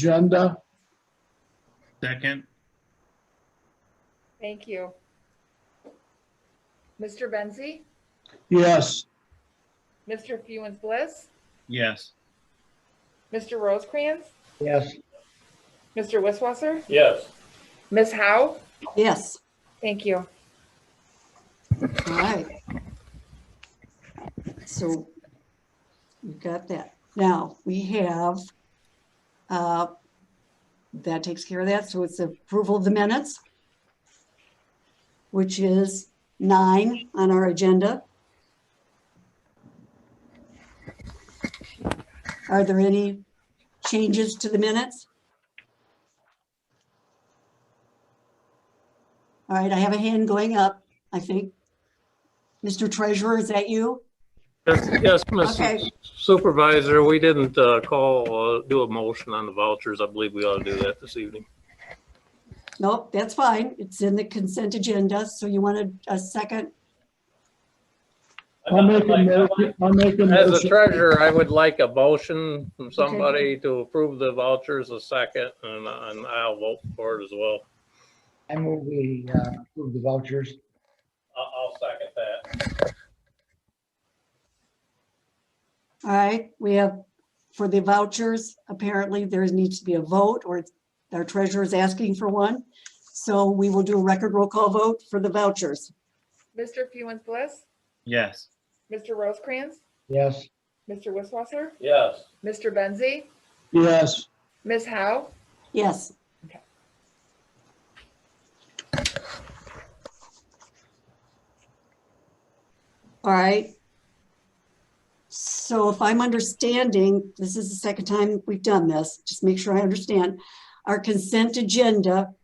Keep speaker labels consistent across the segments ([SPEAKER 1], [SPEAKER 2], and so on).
[SPEAKER 1] agenda.
[SPEAKER 2] Second,
[SPEAKER 3] Thank you. Mr. Benzi,
[SPEAKER 1] Yes,
[SPEAKER 3] Mr. Fewens Bliss,
[SPEAKER 2] yes.
[SPEAKER 3] Mr. Rosecrans,
[SPEAKER 4] Yes.
[SPEAKER 3] Mr. Wisswasser,
[SPEAKER 5] Yes.
[SPEAKER 3] Ms. Howe.
[SPEAKER 6] Yes,
[SPEAKER 3] Thank you.
[SPEAKER 6] all right. So we got that. Now, we have, uh, that takes care of that, so it's approval of the minutes, which is nine on our agenda. Are there any changes to the minutes? All right, I have a hand going up, I think. Mr. Treasurer, is that you?
[SPEAKER 5] Yes, yes,
[SPEAKER 6] Okay.
[SPEAKER 5] Mrs. Supervisor, we didn't uh, call, uh, do a motion on the vouchers. I believe we ought to do that this evening.
[SPEAKER 6] Nope, that's fine. It's in the consent agenda, so you wanted a second?
[SPEAKER 1] I'll make a motion, I'll make a
[SPEAKER 5] As a
[SPEAKER 1] motion.
[SPEAKER 5] treasurer, I would like a motion from somebody to approve the vouchers a second, and and I'll vote for it as well.
[SPEAKER 4] I move we uh, approve the vouchers.
[SPEAKER 5] I'll second that.
[SPEAKER 6] All right, we have, for the vouchers, apparently there needs to be a vote or our treasurer is asking for one. So we will do a record roll call vote for the vouchers.
[SPEAKER 3] Mr. Fewens Bliss,
[SPEAKER 2] Yes.
[SPEAKER 3] Mr. Rosecrans,
[SPEAKER 4] Yes.
[SPEAKER 3] Mr. Wisswasser,
[SPEAKER 5] Yes.
[SPEAKER 3] Mr. Benzi,
[SPEAKER 1] Yes,
[SPEAKER 3] Ms. Howe.
[SPEAKER 6] Yes.
[SPEAKER 3] Okay.
[SPEAKER 6] All right. So if I'm understanding, this is the second time we've done this, just make sure I understand. Our consent agenda,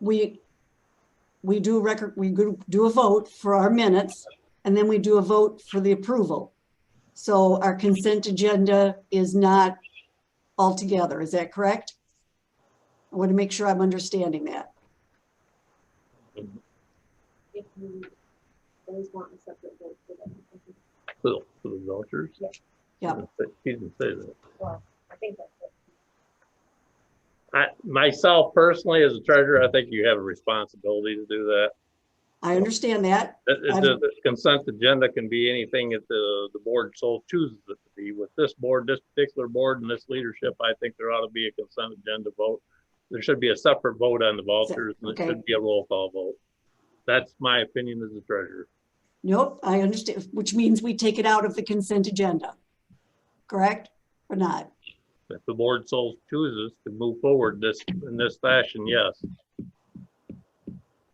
[SPEAKER 6] we, we do record, we go- do a vote for our minutes, and then we do a vote for the approval. So our consent agenda is not altogether. Is that correct? I want to make sure I'm understanding that.
[SPEAKER 7] if you always want a separate vote for them. I think-
[SPEAKER 5] For the- for the vouchers?
[SPEAKER 6] Yeah.
[SPEAKER 5] He didn't say that.
[SPEAKER 7] Well, I think that's it.
[SPEAKER 5] I, myself personally, as a treasurer, I think you have a responsibility to do that.
[SPEAKER 6] I understand that.
[SPEAKER 5] It- it-
[SPEAKER 6] I'm-
[SPEAKER 5] The the consent agenda can be anything that the, the board so chooses it to be. With this board, this particular board and this leadership, I think there ought to be a consent agenda vote. There should be a separate vote on the vouchers and it
[SPEAKER 6] okay.
[SPEAKER 5] should be a roll call vote. That's my opinion as a treasurer.
[SPEAKER 6] Nope, I understand, which means we take it out of the consent agenda. Correct or not?
[SPEAKER 5] If the board so chooses to move forward this, in this fashion, yes.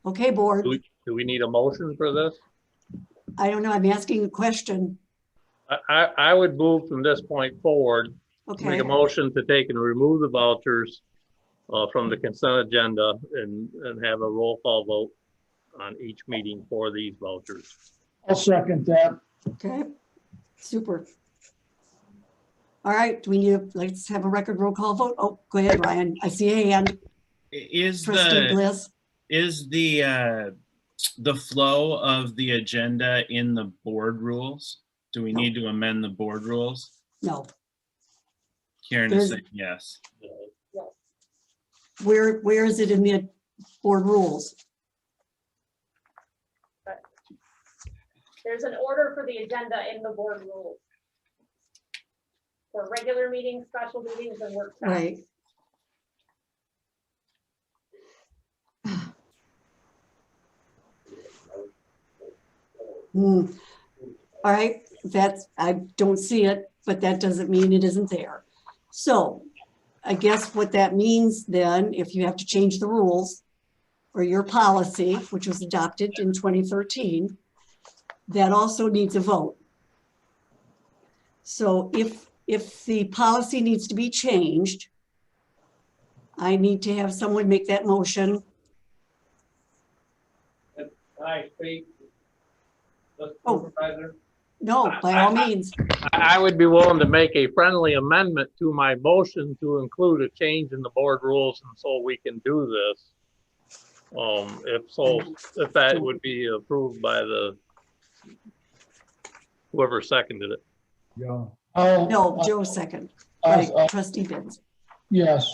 [SPEAKER 6] Okay, board,
[SPEAKER 5] Do we, do we need a motion for this?
[SPEAKER 6] I don't know, I'm asking a question.
[SPEAKER 5] I, I, I would move from this point forward
[SPEAKER 6] Okay,
[SPEAKER 5] Make a motion to take and remove the vouchers uh, from the consent agenda and, and have a roll call vote on each meeting for these vouchers.
[SPEAKER 1] I'll second that.
[SPEAKER 6] okay, super. All right, do we need, a- let's have a record roll call vote. Oh, go ahead, Ryan. I see a hand.
[SPEAKER 2] I- Is the,
[SPEAKER 6] Trustee Bliss.
[SPEAKER 2] is the, uh the flow of the agenda in the board rules? Do we
[SPEAKER 6] No.
[SPEAKER 2] need to amend the board rules?
[SPEAKER 6] No,
[SPEAKER 2] Karen
[SPEAKER 6] There's-
[SPEAKER 2] is saying yes.
[SPEAKER 6] where, where is it in the board rules?
[SPEAKER 7] There's an order for the agenda in the board rules. For regular meetings, special meetings, and workshops.
[SPEAKER 6] Right. Hmm. All right, that's, I don't see it, but that doesn't mean it isn't there. So I guess what that means then, if you have to change the rules or your policy, which was adopted in 2013, that also needs a vote. So if, if the policy needs to be changed, I need to have someone make that motion.
[SPEAKER 5] I speak?
[SPEAKER 6] Oh. No, by all means.
[SPEAKER 5] I would be willing to make a friendly amendment to my motion to include a change in the board rules and so we can do this. Um, if so, if that would be approved by the whoever seconded it.
[SPEAKER 4] Joe.
[SPEAKER 1] I'll-
[SPEAKER 6] No, Joe second.
[SPEAKER 1] I'll-
[SPEAKER 6] Right,
[SPEAKER 1] I'll-
[SPEAKER 6] trustee Benz.
[SPEAKER 1] Yes.